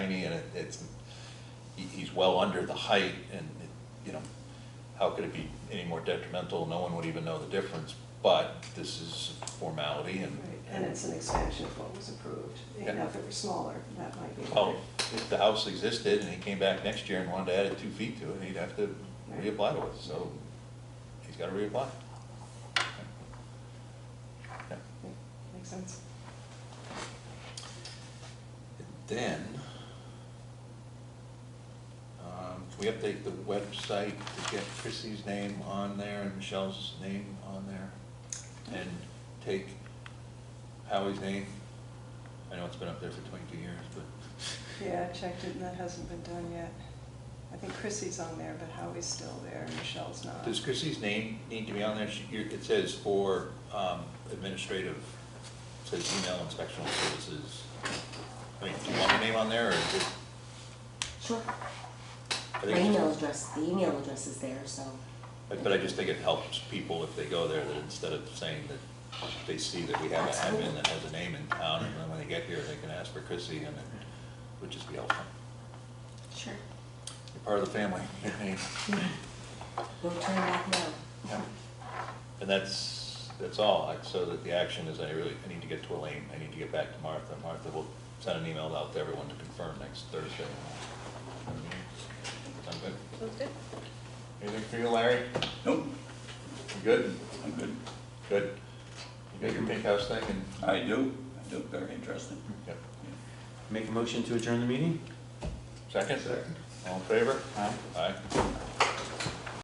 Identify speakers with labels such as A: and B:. A: it's, he, he's well under the height and, you know, how could it be any more detrimental? No one would even know the difference, but this is a formality and,
B: Right, And it's an expansion of what was approved. You know, if it were smaller, that might be.
A: well, if the house existed and he came back next year and wanted to add two feet to it, he'd have to reapply to it, so he's gotta reapply. Yeah.
B: Makes sense.
A: Then, um, can we update the website to get Chrissy's name on there and Michelle's name on there? And take Howie's name? I know it's been up there for twenty-two years, but.
B: Yeah, I checked it and that hasn't been done yet. I think Chrissy's on there, but Howie's still there, Michelle's not.
A: Does Chrissy's name need to be on there? She, you're- it says for, um, administrative, it says email inspectional services. I mean, do you want her name on there or? is it-
C: Sure.
A: I think
C: My
A: it's-
C: email address, the email address is there, so.
A: But but I just think it helps people if they go there, that instead of saying that they see that we have an admin that has a name in town, and then when they get here, they can ask for Chrissy, and it would just be helpful.
C: Sure.
A: You're part of the family, your name.
C: We'll turn back now.
A: Yeah. And that's, that's all, Like, so that the action is, I really, I need to get to Elaine, I need to get back to Martha. Martha will send an email out to everyone to confirm next Thursday. Sound good?
D: Sounds good.
A: Anything for you, Larry?
E: Nope,
A: You good?
E: I'm good.
A: Good. You got your pink house thing and?
E: I do, I do, very interesting.
A: Yep.
F: Make a motion to adjourn the meeting?
A: Second? All in favor?
F: Aye.
A: Aye.